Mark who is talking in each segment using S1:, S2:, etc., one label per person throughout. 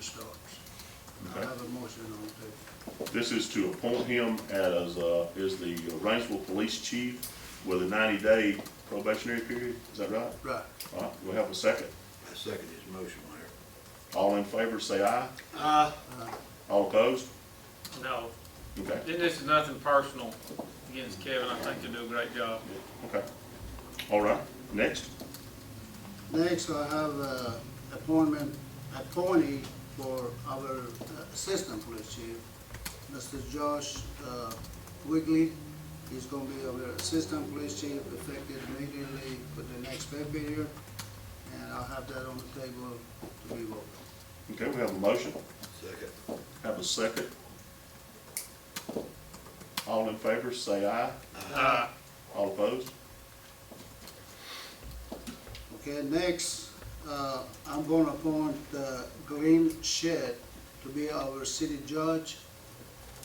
S1: starts. I
S2: Okay.
S1: have a motion on the table.
S2: This is to appoint him as, uh, is the Rainsville Police Chief with a ninety-day probationary period, is that right?
S1: Right.
S2: All right, we'll have a second.
S3: I second his motion, Larry.
S2: All in favor, say aye.
S1: Aye.
S2: All opposed?
S4: No,
S2: Okay,
S4: th- this is nothing personal against Kevin, I think you do a great job.
S2: okay. All right, next.
S1: Next, I have uh, appointment, appointee for our uh, assistant police chief, Mr. Josh uh, Wiggly. He's gonna be our assistant police chief effective immediately for the next pay period. And I'll have that on the table to be voted.
S2: Okay, we have a motion,
S3: Second.
S2: have a second. All in favor, say aye.
S4: Uh,
S2: All opposed?
S1: Okay, next, uh, I'm gonna appoint uh, Glenn Shedd to be our city judge.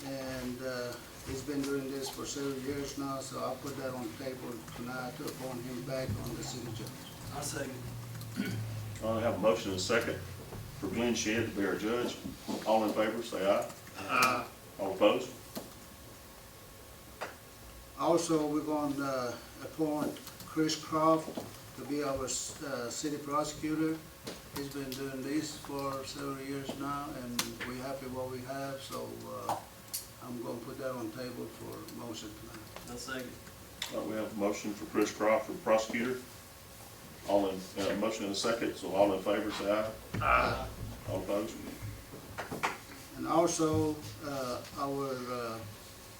S1: And uh, he's been doing this for several years now, so I'll put that on the table tonight to appoint him back on the city judge.
S5: I second.
S2: I have a motion and a second for Glenn Shedd to be our judge. All in favor, say aye.
S4: uh,
S2: All opposed?
S1: Also, we're gonna uh, appoint Chris Croft to be our uh, city prosecutor. He's been doing this for several years now, and we're happy what we have, so uh, I'm gonna put that on the table for motion tonight.
S5: I second.
S2: All right, Uh, we have a motion for Chris Crawford, prosecutor. All in, uh, motion and a second, so all in favor, say aye.
S4: uh,
S2: All opposed?
S1: And also, uh, our uh,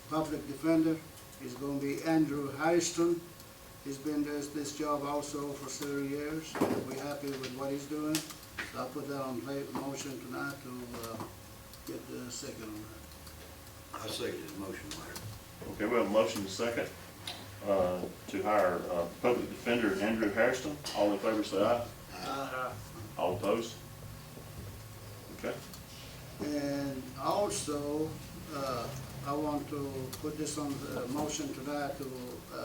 S1: public defender is going to be Andrew Harrison. He's been does this job also for several years, and we're happy with what he's doing. So I'll put that on pla- motion tonight to uh, get the second on that.
S3: I second his motion, Larry.
S2: Okay, we have a motion and a second, uh, to hire, uh, public defender Andrew Harrison. All in favor, say aye.
S4: uh,
S2: All opposed? Okay,
S1: And also, uh, I want to put this on the motion tonight to uh,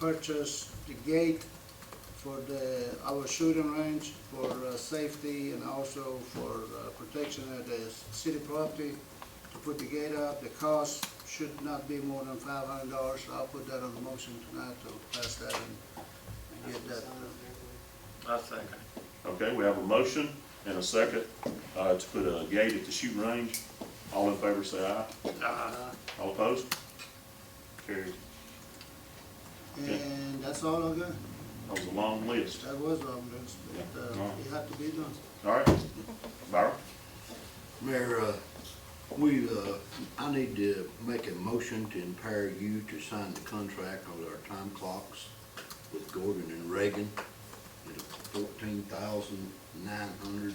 S1: purchase the gate for the, our shooting range for uh, safety and also for uh, protection of the city property. To put the gate up, the cost should not be more than five hundred dollars. I'll put that on the motion tonight to pass that and- and get that.
S4: I second.
S2: okay, we have a motion and a second, uh, to put a gate at the shooting range. All in favor, say aye.
S4: Uh,
S2: All opposed? Carried.
S1: And that's all I got.
S2: That was a long list.
S1: That was all, Mr. but uh, it had to be done.
S2: All right, Byron?
S3: Mayor, uh, we, uh, I need to make a motion to empower you to sign the contract on our time clocks with Gordon and Reagan at fourteen thousand nine hundred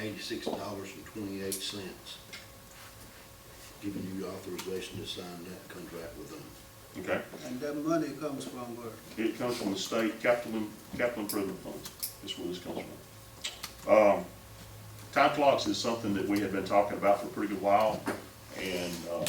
S3: eighty-six dollars and twenty-eight cents. Giving you authorization to sign that contract with them.
S2: Okay.
S1: And that money comes from where?
S2: It comes from the state capital, im- capital improvement funds, That's where this comes from. Um, Time clocks is something that we have been talking about for a pretty good while, and uh,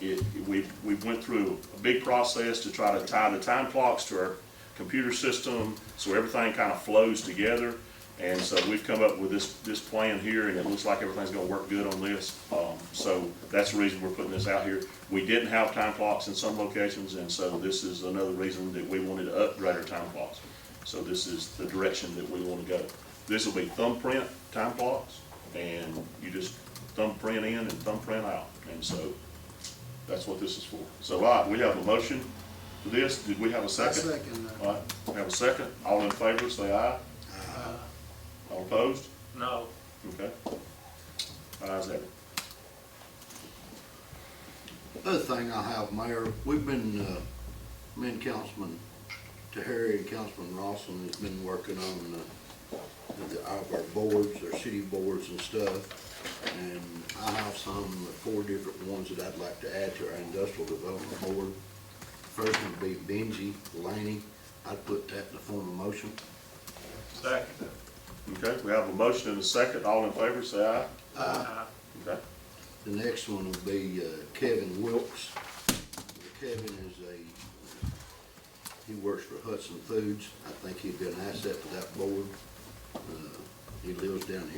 S2: it, we, we went through a big process to try to tie the time clocks to our computer system, so everything kind of flows together, and so we've come up with this, this plan here, and it looks like everything's gonna work good on this, um, so that's the reason we're putting this out here. We didn't have time clocks in some locations, and so this is another reason that we wanted to upgrade our time clocks. So this is the direction that we want to go. This will be thumbprint time clocks, and you just thumbprint in and thumbprint out. And so that's what this is for. So, all right, we have a motion for this. Did we have a
S1: I
S2: second?
S1: second uh, that.
S2: All right, we have a second. All in favor, say aye. All opposed?
S4: no,
S2: Okay. Ayes have it.
S3: Other thing I have, Mayor, we've been, uh, me and Councilman Tahari and Councilman Rawson has been working on, uh, the, our- our boards, our city boards and stuff. And I have some, four different ones that I'd like to add to our industrial development board. First one would be Benji Laney. I'd put that in the form of motion.
S4: second.
S2: Okay, we have a motion and a second. All in favor, say aye.
S4: Uh,
S2: Okay.
S3: The next one will be uh, Kevin Wilkes. Kevin is a, he works for Hudson Foods. I think he'd be an asset to that board. Uh, He lives down here.